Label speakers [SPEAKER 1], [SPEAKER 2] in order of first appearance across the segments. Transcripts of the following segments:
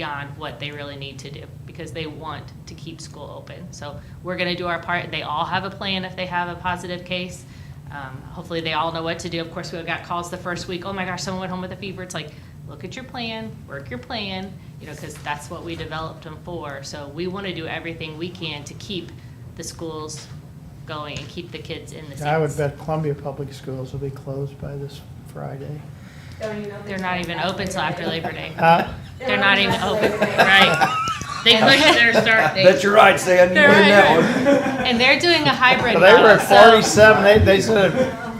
[SPEAKER 1] beyond what they really need to do because they want to keep school open. So we're going to do our part. They all have a plan if they have a positive case. Um, hopefully, they all know what to do. Of course, we got calls the first week. Oh my gosh, someone went home with a fever. It's like, look at your plan, work your plan, you know, because that's what we developed them for. So we want to do everything we can to keep the schools going and keep the kids in the.
[SPEAKER 2] I would
[SPEAKER 1] seats.
[SPEAKER 2] bet Columbia Public Schools will be closed by this Friday.
[SPEAKER 1] They're not even open till after Labor Day.
[SPEAKER 2] Uh,
[SPEAKER 1] They're not even open, right? They pushed their start date.
[SPEAKER 3] Bet you're right, Stan. You
[SPEAKER 1] They're
[SPEAKER 3] win
[SPEAKER 1] right,
[SPEAKER 3] that one.
[SPEAKER 1] And they're doing a hybrid
[SPEAKER 2] But they were
[SPEAKER 1] now,
[SPEAKER 2] at
[SPEAKER 1] so-
[SPEAKER 2] forty-seven, they, they said,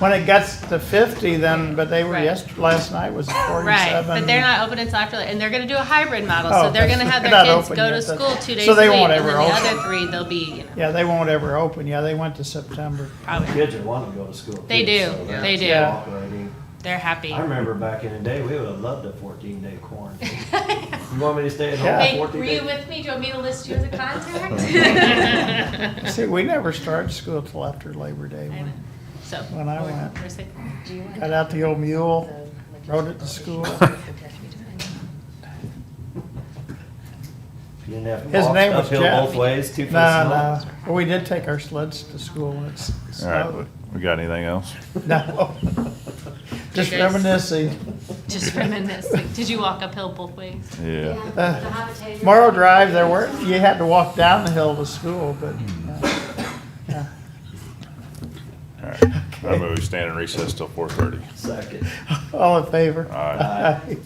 [SPEAKER 2] when it gets to fifty then, but they were,
[SPEAKER 1] Right.
[SPEAKER 2] yesterday, last night was forty-seven.
[SPEAKER 1] Right, but they're not open until after, and they're gonna do a hybrid model,
[SPEAKER 2] Oh,
[SPEAKER 1] so they're gonna have their
[SPEAKER 2] not
[SPEAKER 1] kids
[SPEAKER 2] open
[SPEAKER 1] go
[SPEAKER 2] yet,
[SPEAKER 1] to
[SPEAKER 2] that's-
[SPEAKER 1] school two days
[SPEAKER 2] so
[SPEAKER 1] a week,
[SPEAKER 2] they won't
[SPEAKER 1] and then
[SPEAKER 2] ever
[SPEAKER 1] the
[SPEAKER 2] open.
[SPEAKER 1] other three, they'll be, you know,
[SPEAKER 2] Yeah, they won't ever open, yeah, they went to September.
[SPEAKER 1] probably,
[SPEAKER 3] Kids would want to go to school.
[SPEAKER 1] They
[SPEAKER 3] too,
[SPEAKER 1] do.
[SPEAKER 3] so
[SPEAKER 1] They
[SPEAKER 3] that's
[SPEAKER 1] do.
[SPEAKER 2] Yeah.
[SPEAKER 3] operating.
[SPEAKER 1] they're happy.
[SPEAKER 3] I remember back in the day, we would have loved a 14 day quarantine. you want me to stay at home
[SPEAKER 2] Yeah.
[SPEAKER 1] Hey,
[SPEAKER 3] 14
[SPEAKER 1] were you
[SPEAKER 3] days?
[SPEAKER 1] with me, do you want me to list you as a contact?
[SPEAKER 2] See, we never started school till after Labor Day,
[SPEAKER 1] I know.
[SPEAKER 2] when
[SPEAKER 1] So.
[SPEAKER 2] When I
[SPEAKER 1] we're-
[SPEAKER 2] went.
[SPEAKER 1] we're safe.
[SPEAKER 2] got out the old mule, rode it to school.
[SPEAKER 3] You didn't have to
[SPEAKER 2] His
[SPEAKER 3] walk
[SPEAKER 2] name was
[SPEAKER 3] uphill
[SPEAKER 2] Jeff.
[SPEAKER 3] both ways, two feet
[SPEAKER 2] No,
[SPEAKER 3] snow.
[SPEAKER 2] no, But we did take our sleds to school when it
[SPEAKER 4] All right,
[SPEAKER 2] snowed.
[SPEAKER 4] we got anything else?
[SPEAKER 2] No, just
[SPEAKER 1] You guys-
[SPEAKER 2] reminiscing.
[SPEAKER 1] Just reminiscing, did you walk uphill both ways?
[SPEAKER 4] Yeah.
[SPEAKER 2] Morrow Drive, there were, you had to walk down the hill to school, but, uh, yeah.
[SPEAKER 4] All right. I move we stand in recess till four thirty.
[SPEAKER 3] Second.
[SPEAKER 2] all in favor?
[SPEAKER 4] Aye.
[SPEAKER 3] Aye.